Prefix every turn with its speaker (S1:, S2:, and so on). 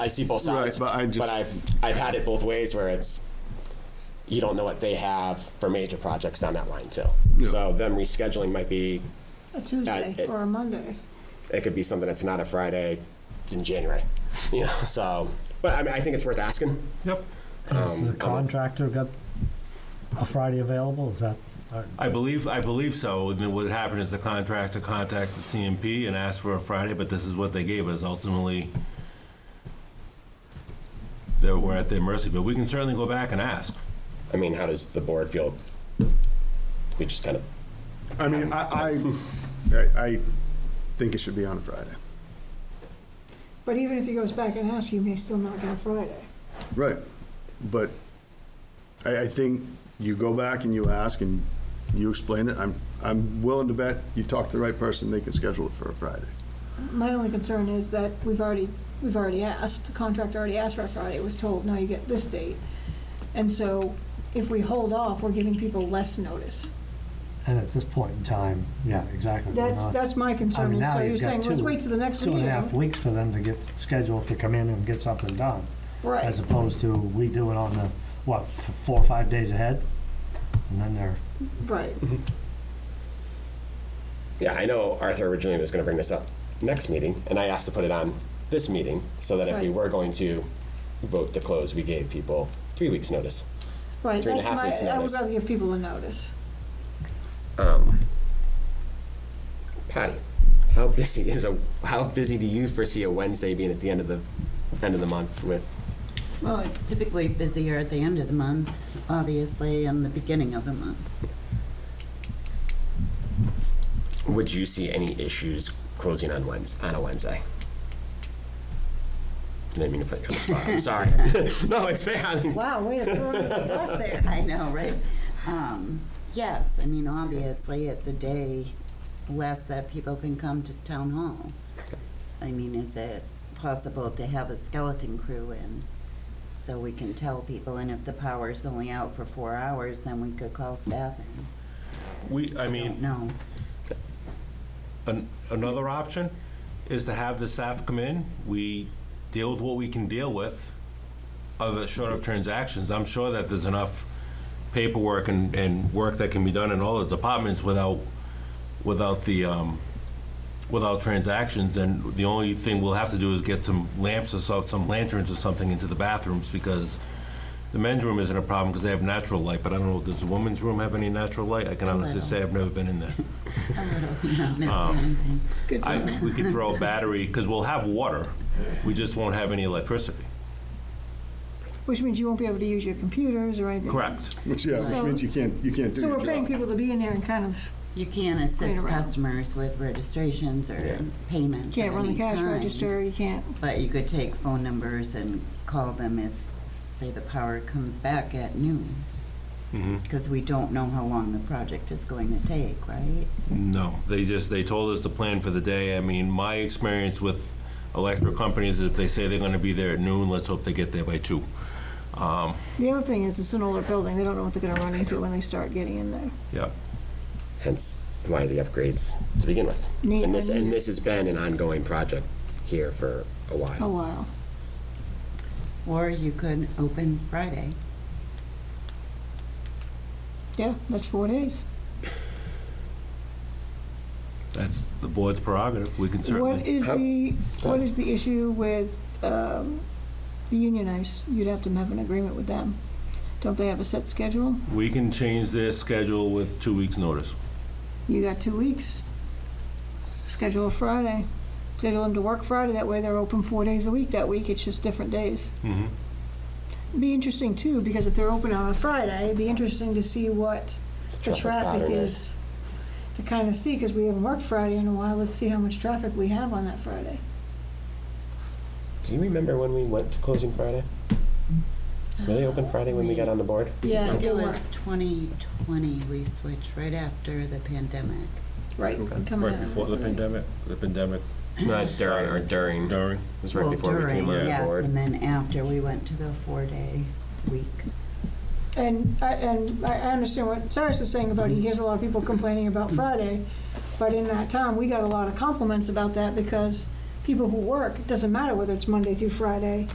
S1: I see both sides,
S2: Right, but I just-
S1: I've I've had it both ways where it's you don't know what they have for major projects down that line too. So them rescheduling might be
S3: A Tuesday
S1: it-
S3: or a Monday.
S1: it could be something that's not a Friday in January, you know. So, but I mean, I think it's worth asking.
S4: Yep.
S5: Has the
S1: Um,
S5: contractor got a Friday available? Is that, uh,
S4: I believe, I believe so. I mean, What happened is the contractor contacted CMP and asked for a Friday, but this is what they gave us ultimately. That we're at their mercy, but we can certainly go back and ask.
S1: I mean, how does the board feel? We just kind of
S2: I mean, I, I, I- I think it should be on a Friday.
S3: But even if he goes back and asks, you may still not get a Friday.
S2: Right, but I, I think you go back and you ask and you explain it. I'm, I'm willing to bet you talk to the right person, they can schedule it for a Friday.
S3: My only concern is that we've already, we've already asked, the contractor already asked for a Friday, it was told, now you get this date. And so if we hold off, we're giving people less notice.
S5: and at this point in time, yeah, exactly. we're
S3: That's,
S5: not-
S3: that's my
S5: Uh-huh. I
S3: concern,
S5: mean,
S3: and
S5: now
S3: so you're
S5: you've got
S3: saying, let's
S5: two-
S3: wait till the next
S5: Two and a half
S3: meeting.
S5: weeks for them to get scheduled to come in and get something done, as
S3: Right,
S5: opposed to we do it on the, what, f- four or five days ahead? And then they're,
S3: right.
S5: Mm-hmm.
S1: Yeah, I know Arthur originally was going to bring this up next meeting, and I asked to put it on this meeting so that if we
S3: Right.
S1: were going to vote to close, we gave people three weeks' notice.
S3: Right,
S1: Three and a
S3: that's
S1: half weeks'
S3: my, I would
S1: notice.
S3: rather give people a notice.
S1: Um, Patty, how busy is a how busy do you foresee a Wednesday being at the end of the end of the month with?
S6: Well, it's typically busier at the end of the month, obviously, and the beginning of the month.
S1: Would you see any issues closing on Wednes on a Wednesday? Didn't mean to put you on the spot. I'm sorry. no, it's fair. I mean,
S3: Wow, way to throw me under the bus there.
S6: I know, right? Um, Yes, I mean, obviously, it's a day less that people can come to town hall. I mean, is it possible to have a skeleton crew in so we can tell people, and if the power's only out for four hours, then we could call staff in?
S4: We, I mean,
S6: No,
S4: An- Another option is to have the staff come in, we deal with what we can deal with, other short of transactions. I'm sure that there's enough paperwork and, and work that can be done in all the departments without, without the, um, without transactions, and the only thing we'll have to do is get some lamps or so, some lanterns or something into the bathrooms, because the men's room isn't a problem, because they have natural light, but I don't know, does the women's room have any natural light? I can honestly
S6: little.
S4: say I've never been in there.
S6: a little, you're not missing anything.
S3: Good
S4: I,
S3: to know.
S4: we could throw a battery, because we'll have water, we just won't have any electricity.
S3: Which means you won't be able to use your computers or anything.
S4: Correct.
S2: Which, yeah, which
S3: So-
S2: means you can't, you can't do
S3: So
S2: your
S3: we're
S2: job.
S3: paying people to be in there and kind of
S6: You can't assist
S3: around.
S6: customers with registrations
S1: Yeah.
S6: or payments of
S3: can't run the
S6: any
S3: cash
S6: kind,
S3: register, you can't,
S6: But you could take phone numbers and call them if, say, the power comes back at noon.
S1: Mm-hmm.
S6: Because we don't know how long the project is going to take, right?
S4: No, they just, they told us the plan for the day. I mean, my experience with electric companies, is if they say they're gonna be there at noon, let's hope they get there by two. Um,
S3: The other thing is, it's an older building, they don't know what they're gonna run into when they start getting in there.
S4: yeah.
S1: hence why the upgrades to begin with.
S3: Neat,
S1: And this,
S3: I
S1: and
S3: need it.
S1: this has been an ongoing project here for a
S3: Oh,
S1: while.
S3: wow.
S6: Or you could open Friday.
S3: Yeah, that's four days.
S4: That's the board's prerogative, we can
S3: What
S4: certainly.
S3: is
S1: How-
S3: the, what is the issue with, um, the unionized? You'd have to have an agreement with them. Don't they have a set schedule?
S4: We can change their schedule with two weeks' notice.
S3: You got two weeks. Schedule a Friday. Schedule them to work Friday, that way they're open four days a week that week, it's just different days.
S4: Mhm.
S3: Be interesting too, because if they're open on a Friday, it'd be interesting to see what the traffic
S1: pattern
S3: is. To kind of see, because we haven't worked Friday in a while, let's see how much traffic we have on that Friday.
S1: Do you remember when we went to closing Friday? Were they open Friday when we got on the board?
S3: Yeah,
S6: I think
S3: they
S6: it
S3: were.
S6: was 2020 we switched right after the pandemic.
S3: Right, coming out.
S4: the pandemic? The pandemic
S1: Not during, or during. It
S4: during.
S1: was right
S6: Well,
S1: before we came
S6: during,
S1: on the
S6: yes,
S1: board.
S6: and then after we went to the four-day week.
S3: And, I- and I, I understand what Cyrus is saying about, he hears a lot of people complaining about Friday, but in that town, we got a lot of compliments about that because people who work, it doesn't matter whether it's Monday through Friday,